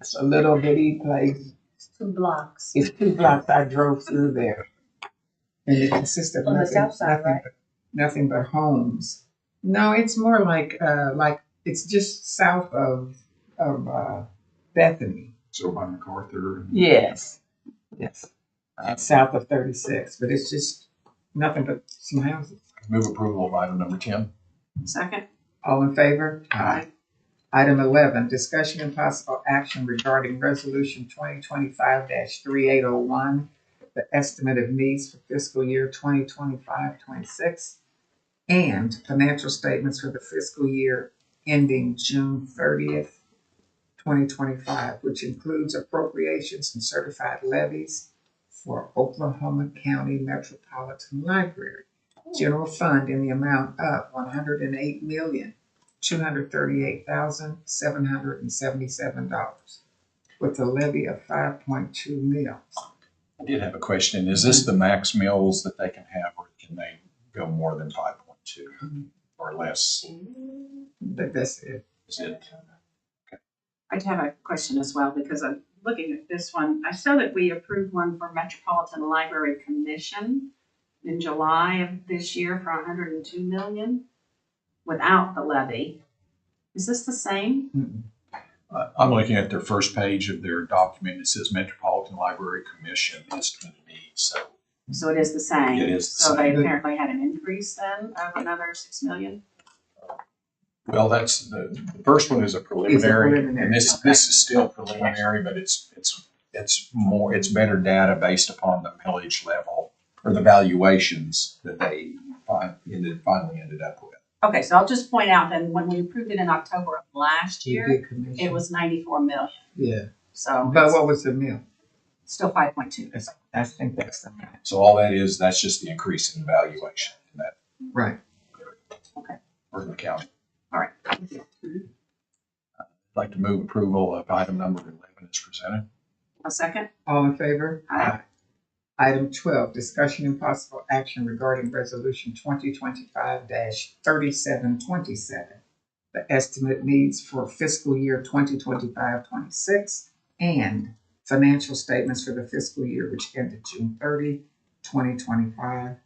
It's a little bitty place. It's two blocks. It's two blocks. I drove through there. And it consists of On the nothing, south side, nothing, right? but, nothing but homes. No, it's more like uh, like it's just south of of uh, Bethany. So by MacArthur. and- Yes. Yes. Uh, south of 36, but it's just nothing but some houses. Move approval of item number ten. Second. All in favor? Item eleven, discussion and possible action regarding resolution twenty twenty-five three eight oh one, the estimate of needs for fiscal year 2025-26, and financial statements for the fiscal year ending June thirtieth, twenty twenty-five, which includes appropriations and certified levies for Oklahoma County Metropolitan Library. General fund in the amount of one hundred and eight million, two hundred thirty-eight thousand, seven hundred and seventy-seven dollars with a levy of five point two mils. I did have a question. Is this the max mills that they can have or can they go more than five point two or less? But that's it. Is it? I'd have a question as well because I'm looking at this one. I saw that we approved one for Metropolitan Library Commission in July of this year for hundred and two million without the levy. Is this the same? Mm-mm. Uh, I'm looking at their first page of their document. It says Metropolitan Library Commission estimate of needs. So So it is the same? It is the So they same. apparently had an increase then of another six million? Well, that's, the, the first one is a preliminary, preliminary, and this, this is still preliminary, but it's, it's, it's more, it's better data based upon the millage level or the valuations that they fin- ended, finally ended up with. Okay, so I'll just point out then, when we approved it in October of last year, Big commission. it was ninety-four million, Yeah, so but it's what was the mill? still five point two. That's- I think that's the, mill. So all that is, that's just the increase in valuation in that, right. for the county. All right. I'd like to move approval of item number eleven as presented. A second? All in favor? Aye. Item twelve, discussion and possible action regarding resolution twenty twenty-five thirty-seven twenty-seven. The estimate needs for fiscal year 2025-26 and financial statements for the fiscal year which ended June 30, 2025,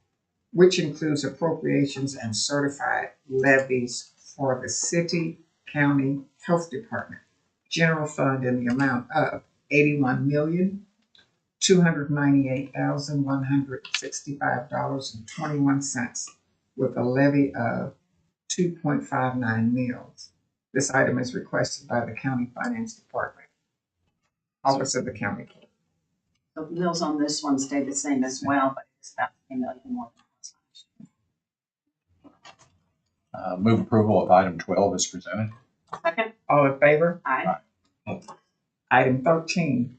which includes appropriations and certified levies for the city, county, health department, general fund in the amount of eighty-one million, two hundred ninety-eight thousand one hundred sixty-five dollars and twenty-one cents with a levy of two point five nine mils. This item is requested by the County Finance Department, Office of the County Clerk. The mills on this one stayed the same as well, but it's about a million more. Uh, move approval of item twelve as presented. Second? All in favor? Aye. Item thirteen.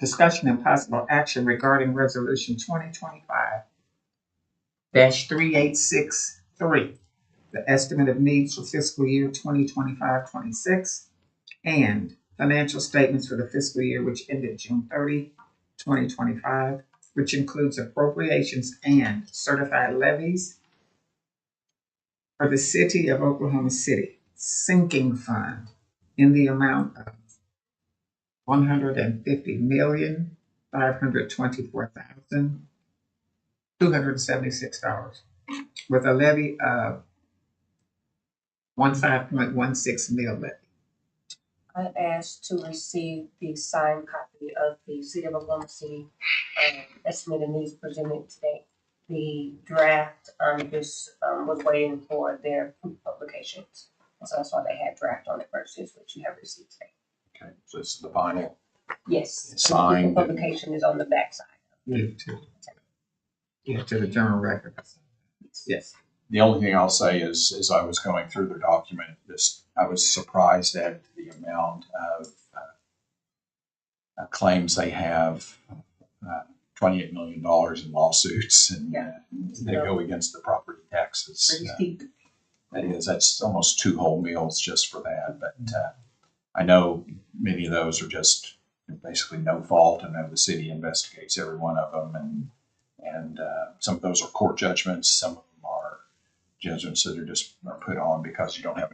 Discussion and possible action regarding resolution twenty twenty-five three eight six three, the estimate of needs for fiscal year 2025-26, and financial statements for the fiscal year which ended June 30, 2025, which includes appropriations and certified levies for the City of Oklahoma City sinking fund in the amount of one hundred and fifty million, five hundred twenty-four thousand, two hundred seventy-six dollars with a levy of one five point one six mil levy. I asked to receive the signed copy of the City of Oklahoma City um, estimated needs presented today. The draft on this um, was waiting for their publications. So that's why they had draft on it versus what you have received today. Okay, so this is the final. Yes. Signed. The publication is on the backside. Give to, give to the general record. Yes. The only thing I'll say is, as I was going through the document, this, I was surprised at the amount of uh, uh, claims they have, uh, twenty-eight million dollars in lawsuits and uh, they go against the property taxes. Pretty Uh, steep. That is, that's almost two whole meals just for that, but, uh, I know many of those are just basically no fault. I know the city investigates every one of them and, and, uh, some of those are court judgments, some of them are judgments that are just are put on because you don't have